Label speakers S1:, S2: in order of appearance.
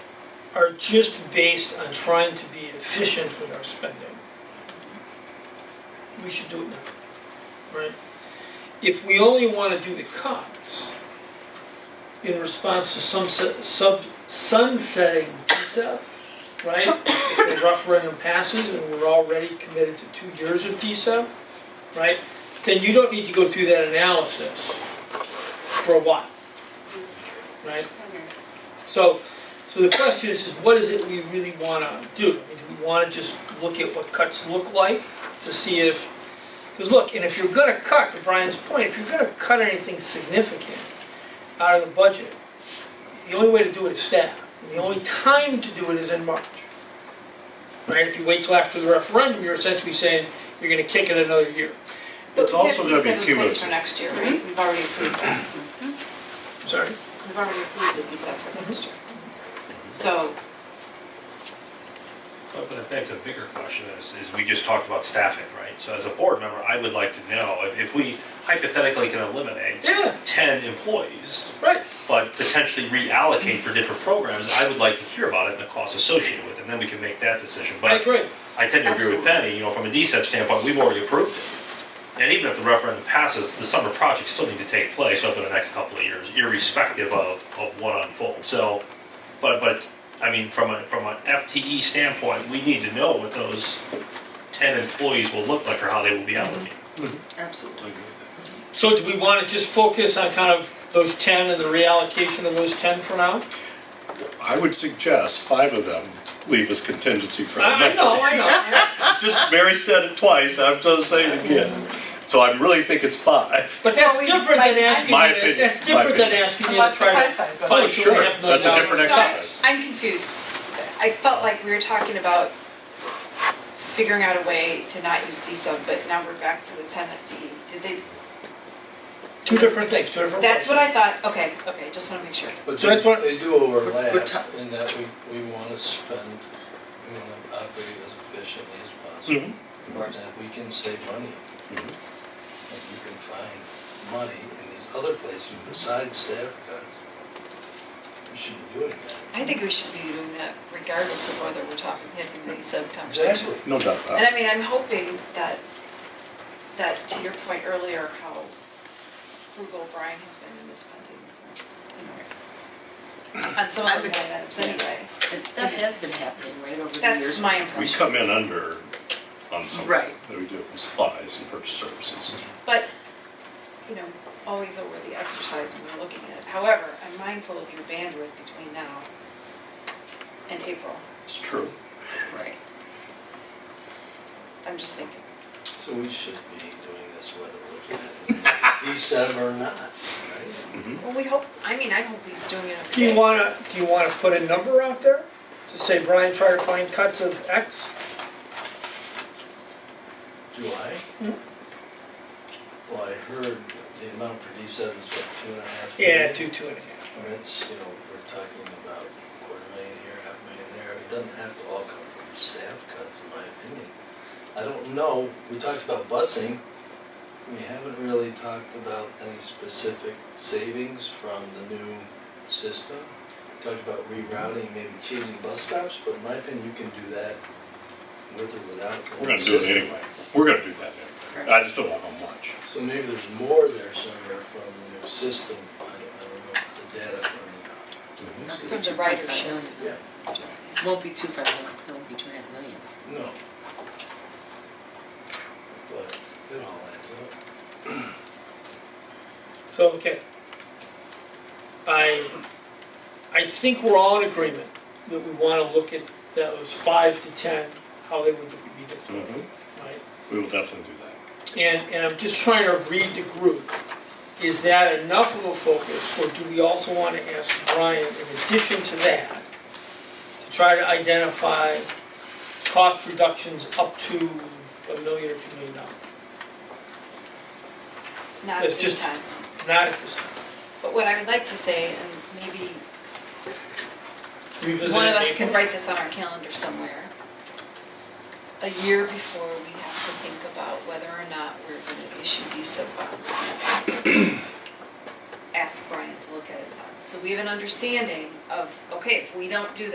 S1: are just based on trying to be efficient with our spending. We should do it now, right? If we only want to do the cuts in response to some se- sub, sunsetting DSEP, right? If the referendum passes and we're already committed to two years of DSEP, right? Then you don't need to go through that analysis for a while, right? So, so the question is, is what is it we really wanna do? I mean, do we wanna just look at what cuts look like to see if, because look, and if you're gonna cut, to Brian's point, if you're gonna cut anything significant out of the budget, the only way to do it is staff. And the only time to do it is in March. Right, if you wait till after the referendum, you're essentially saying you're gonna kick it another year.
S2: It's also gonna be
S3: We have DSEP in place
S2: cumulative. Mm-hmm.
S3: for next year, right? We've already approved that.
S1: Sorry.
S3: We've already approved the DSEP for next year. So,
S4: But but I think the bigger question is, is we just talked about staffing, right? So as a board member, I would like to know if, if we hypothetically can eliminate
S1: Yeah.
S4: ten employees,
S1: Right.
S4: but potentially reallocate for different programs, I would like to hear about it and the costs associated with it, and then we can make that decision.
S1: I
S4: But
S1: agree.
S4: I tend to agree with
S3: Absolutely.
S4: Penny, you know, from a DCEP standpoint, we've already approved it. And even if the referendum passes, the summer projects still need to take place over the next couple of years, irrespective of, of what unfolds. So, but, but, I mean, from a, from an FTE standpoint, we need to know what those ten employees will look like or how they will be allocated.
S2: Absolutely.
S1: So do we wanna just focus on kind of those ten and the reallocation of those ten for now?
S2: I would suggest five of them leave as contingency for the
S1: I I
S2: next.
S1: know, I know,
S2: Just Mary said it twice, I'm gonna say it again. So I really think it's five.
S1: but that's different than asking,
S2: My
S1: you to-
S2: opinion,
S1: that's
S2: my
S1: different than
S2: opinion.
S1: asking you to try to.
S2: Oh,
S1: Push two and
S2: sure,
S1: a half million
S2: that's a
S1: dollars.
S2: different
S3: so I-
S2: exercise.
S3: I'm confused. I felt like we were talking about figuring out a way to not use DSEP, but now we're back to the ten FTE. Did they,
S1: Two different things, two different.
S3: that's what I thought, okay, okay, just wanna make sure.
S5: But
S1: So that's what-
S5: they, they do overlap
S1: We're ta-
S5: in that we, we wanna spend, we wanna operate as efficiently as
S1: Mm-hmm.
S5: possible. And if we can save money, and
S2: Mhm.
S5: you can find money in these other places besides staff cuts, we should be doing that.
S6: I think we should be doing that regardless of whether we're talking, having any sub-conversation.
S5: Exactly.
S2: No doubt about
S3: And
S2: it.
S3: I mean, I'm hoping that, that to your point earlier, how frugal Brian has been in this funding, so, you know. On some of those line items anyway,
S7: But That has been happening, right, over the
S3: that's
S7: years?
S3: my
S2: We
S3: impression.
S2: come in under on some,
S7: Right.
S2: that we do, in supplies and purchase services.
S3: But, you know, always a worthy exercise when we're looking at it. However, I'm mindful of your bandwidth between now and April,
S2: It's true.
S7: Right.
S3: I'm just thinking.
S5: So we should be doing this whether we're looking at it December or not, right?
S3: Well, we hope, I mean, I hope he's doing it
S1: Do you
S3: okay.
S1: wanna, do you wanna put a number out there to say, Brian, try to find cuts of X?
S5: Do I?
S1: Mm-hmm.
S5: Well, I heard the amount for D seven is what, two and a half?
S1: Yeah,
S2: Mm-hmm.
S5: million?
S1: two, two and a half.
S5: And it's, you know, we're talking about quarter million here, half million there, it doesn't have to all come from staff cuts, in my opinion. I don't know, we talked about busing, we haven't really talked about any specific savings from the new system. We Talked about rerouting, maybe changing bus stops, but in my opinion, you can do that with or without. the
S2: We're gonna
S5: new
S2: do it
S5: system.
S2: anyway. We're gonna do that anyway. I just don't know how much.
S5: So maybe there's more there somewhere from the new system, I don't, I don't know, it's the data from the. new
S6: From
S5: system.
S6: the ridership.
S5: Yeah,
S7: Won't be two five million, it won't be two and a half million.
S5: no. But it all adds up.
S1: So, okay. I, I think we're all in agreement that we wanna look at those five to ten, how they would be deployed,
S2: Mhm.
S1: right?
S2: We will definitely do that.
S1: And, and I'm just trying to read the group. Is that enough of a focus, or do we also want to ask Brian, in addition to that, to try to identify cost reductions up to a million or two million dollars?
S3: Not
S1: It's
S3: at this
S1: just-
S3: time.
S1: Not at this time.
S3: But what I would like to say, and maybe
S1: Revisit
S3: One of
S1: it
S3: us
S1: in
S3: can
S1: April.
S3: write this on our calendar somewhere. A year before, we have to think about whether or not we're gonna issue DSO bonds. or not. Ask Brian to look at it. So we have an understanding of, okay, if we don't do